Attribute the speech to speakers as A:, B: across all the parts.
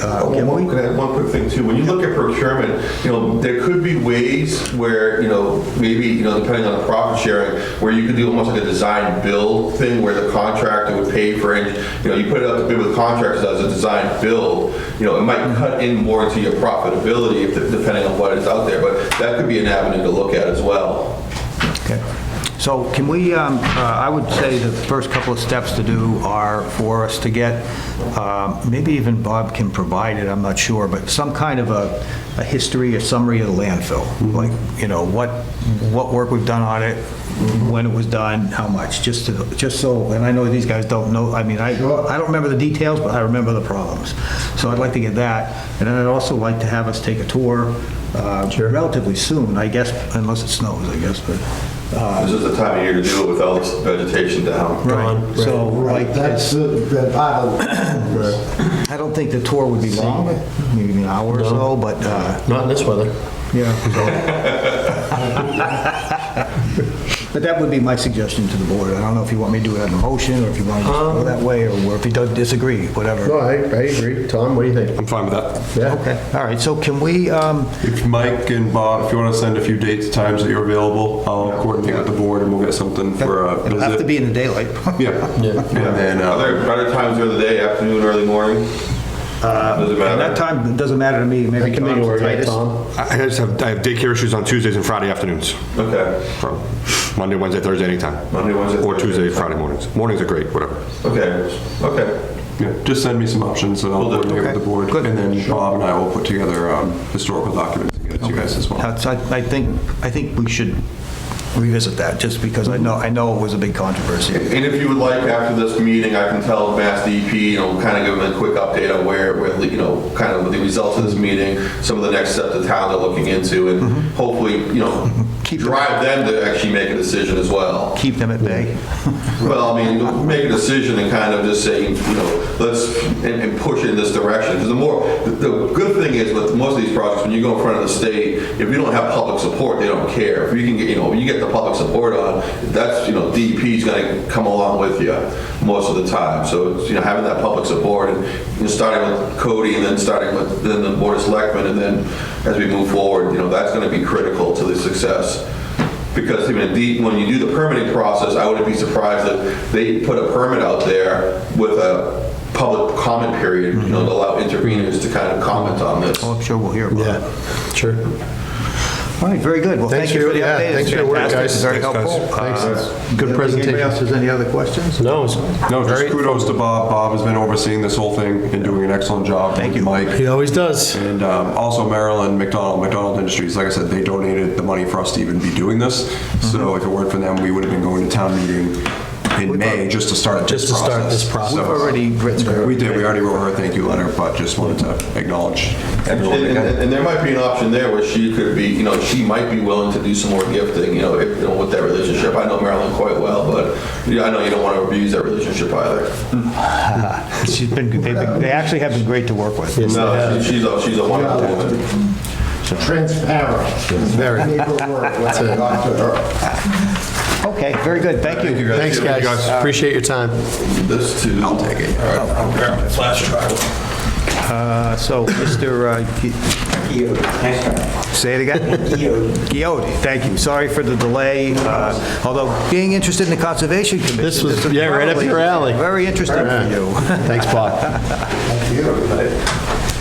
A: Uh, One can I add one quick thing too, when you look at procurement, you know, there could be ways where, you know, maybe, you know, depending on the profit sharing, where you could do almost like a design build thing where the contractor would pay for it, you know, you put it up to bid with contractors as a design build, you know, it might cut in more into your profitability if- depending on what is out there, but that could be an avenue to look at as well.
B: Okay. So can we, um, uh, I would say the first couple of steps to do are for us to get, um, maybe even Bob can provide it, I'm not sure, but some kind of a a history, a summary of the landfill. Like, you know, what, what work we've done on it, when it was done, how much, just to, just so, and I know these guys don't know, I mean, I, I don't remember the details, but I remember the problems. So I'd like to get that. And then I'd also like to have us take a tour uh, relatively soon, I guess, unless it snows, I guess, but.
A: Uh, This is the time of year to do it with all this vegetation down.
B: Right, so, like,
C: That's
B: it's-
C: the the part of,
B: I don't think the tour would be long, maybe an hour or so, but, uh,
D: Not in this weather.
B: yeah. so. But that would be my suggestion to the board. I don't know if you want me to do it on a motion, or if you want to just go that way, or if you don't disagree,
D: No,
B: whatever.
D: I, I agree. Tom, what do you think?
E: I'm fine with that.
D: Yeah?
B: Okay, all right, so can we, um,
E: If Mike and Bob, if you want to send a few dates, times that you're available, I'll coordinate with the board and we'll get something for a
B: it'll have to
E: visit.
B: be in the daylight.
E: Yeah. And then,
A: Are
E: uh,
A: there better times during the day, afternoon, early morning? Doesn't
B: Uh, And that
A: matter.
B: time, doesn't matter to me, maybe
D: I can make it
B: Tom's
D: work,
B: the
D: yeah,
B: tightest.
D: Tom.
E: I I just have, I have daycare issues on Tuesdays and Friday afternoons,
A: Okay.
E: from Monday, Wednesday, Thursday, anytime.
A: Monday, Wednesday,
E: Or Tuesday,
A: Thursday.
E: Friday mornings. Mornings are great, whatever.
A: Okay, okay.
E: Yeah, just send me some options and I'll
A: Will do.
E: coordinate with the board.
B: Good.
E: And then Bob and I will put together um, historical documents to get to you guys as well.
B: That's- I I think, I think we should revisit that, just because I know, I know it was a big controversy.
A: And if you would like, after this meeting, I can tell Mass DEP, you know, kind of give them a quick update on where, where, you know, kind of the results of this meeting, some of the next steps the town are looking into, and hopefully, you know,
B: Keep-
A: drive them to actually make a decision as well.
B: Keep them at bay.
A: Well, I mean, make a decision and kind of just say, you know, let's, and, and push it in this direction. Because the more, the the good thing is with most of these projects, when you go in front of the state, if you don't have public support, they don't care. If you can get, you know, you get the public support on, that's, you know, DEP's gonna come along with you most of the time. So, it's, you know, having that public support and, you know, starting with Cody and then starting with, then the Board of Selectmen, and then as we move forward, you know, that's gonna be critical to the success. Because I mean, the- when you do the permitting process, I wouldn't be surprised if they put a permit out there with a public comment period, you know, to allow interveners to kind of comment on this.
B: Oh, I'm sure we'll hear about it.
D: Yeah, sure.
B: All right, very good. Well,
D: Thanks
B: thank you
D: for
B: for the
D: your- yeah,
B: update.
D: thanks for your work,
B: Fantastic.
D: guys.
B: Very
E: Thanks, guys.
B: helpful.
D: Thanks.
B: Uh,
D: Good
B: Anybody
D: presentation.
B: else has any other questions?
D: No, it's
E: No, just
D: very-
E: kudos to Bob. Bob has been overseeing this whole thing and doing an excellent job. Thank you. Mike.
D: He always does.
E: And um, also Maryland McDonald, McDonald Industries, like I said, they donated the money for us to even be doing this. So
D: Mm-hmm.
E: if it weren't for them, we would have been going to town meeting in May just to start this
D: Just
E: process.
D: to start this process.
E: So-
B: We've already written her-
E: We did, we already wrote her a thank you letter, but just wanted to acknowledge
A: And,
E: everyone
A: and-
E: again.
A: and there might be an option there where she could be, you know, she might be willing to do some more gifting, you know, if, you know, with that relationship. I know Marilyn quite well, but you know, I know you don't want to abuse that relationship either.
B: She's been, they've been- they actually have been great to work with.
A: No, she- she's a, she's a wonderful woman.
C: transparent.
D: Very.
C: Paperwork, when it got to her.
B: Okay, very good. Thank you.
D: Thanks,
E: Thank you,
D: guys.
E: guys.
D: Appreciate your time.
A: This too. I'll take it.
D: Flash drive.
B: Uh, So, Mr. uh, Gi- Say it again? Giodi. thank you. Sorry for the delay, uh, although being interested in the Conservation Commission.
D: This was-
B: is
D: yeah, right up
B: probably
D: your alley.
B: Very interesting for you.
D: Thanks, Bob.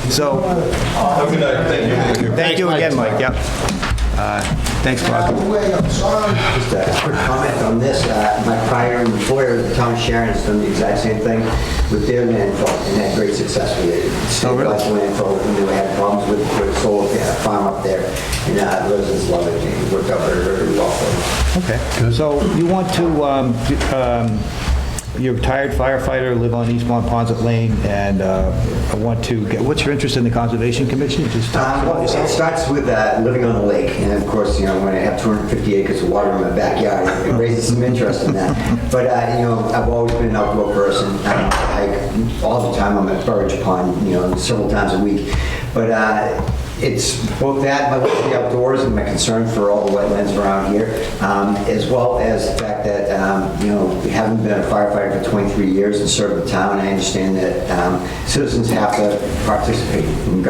B: So,
A: Have a good night. Thank you. Thank you.
B: thank you
D: Mike.
B: again, Mike, yep. Uh, Thanks,
F: By the
B: Bob.
F: way, I'm sorry. Just a quick comment on this. Uh, My prior employer, the town of Sharon's done the exact same thing with their landfill and had great success with it.
B: Oh, really?
F: State landfill, and they had problems with with solar farm up there. And uh, residents love it. It worked out very, very well for them.
B: Okay. So you want to, um, d- um, you're a retired firefighter, live on Eastmont Ponset Lane, and uh, I want to get, what's your interest in the Conservation Commission? Just talk
F: Um,
B: about
F: well,
B: yourself.
F: It starts with uh, living on a lake, and of course, you know, when I have 250 acres of water in my backyard, it raises some interest in that. But, uh, you know, I've always been an outdoor person. I hike all the time. I'm at Burridge Pond, you know, several times a week. But uh, it's both that, my love for the outdoors and my concern for all the wetlands around here, um, as well as the fact that, um, you know, having been a firefighter for 23 years and served the town, I understand that um, citizens have to participate and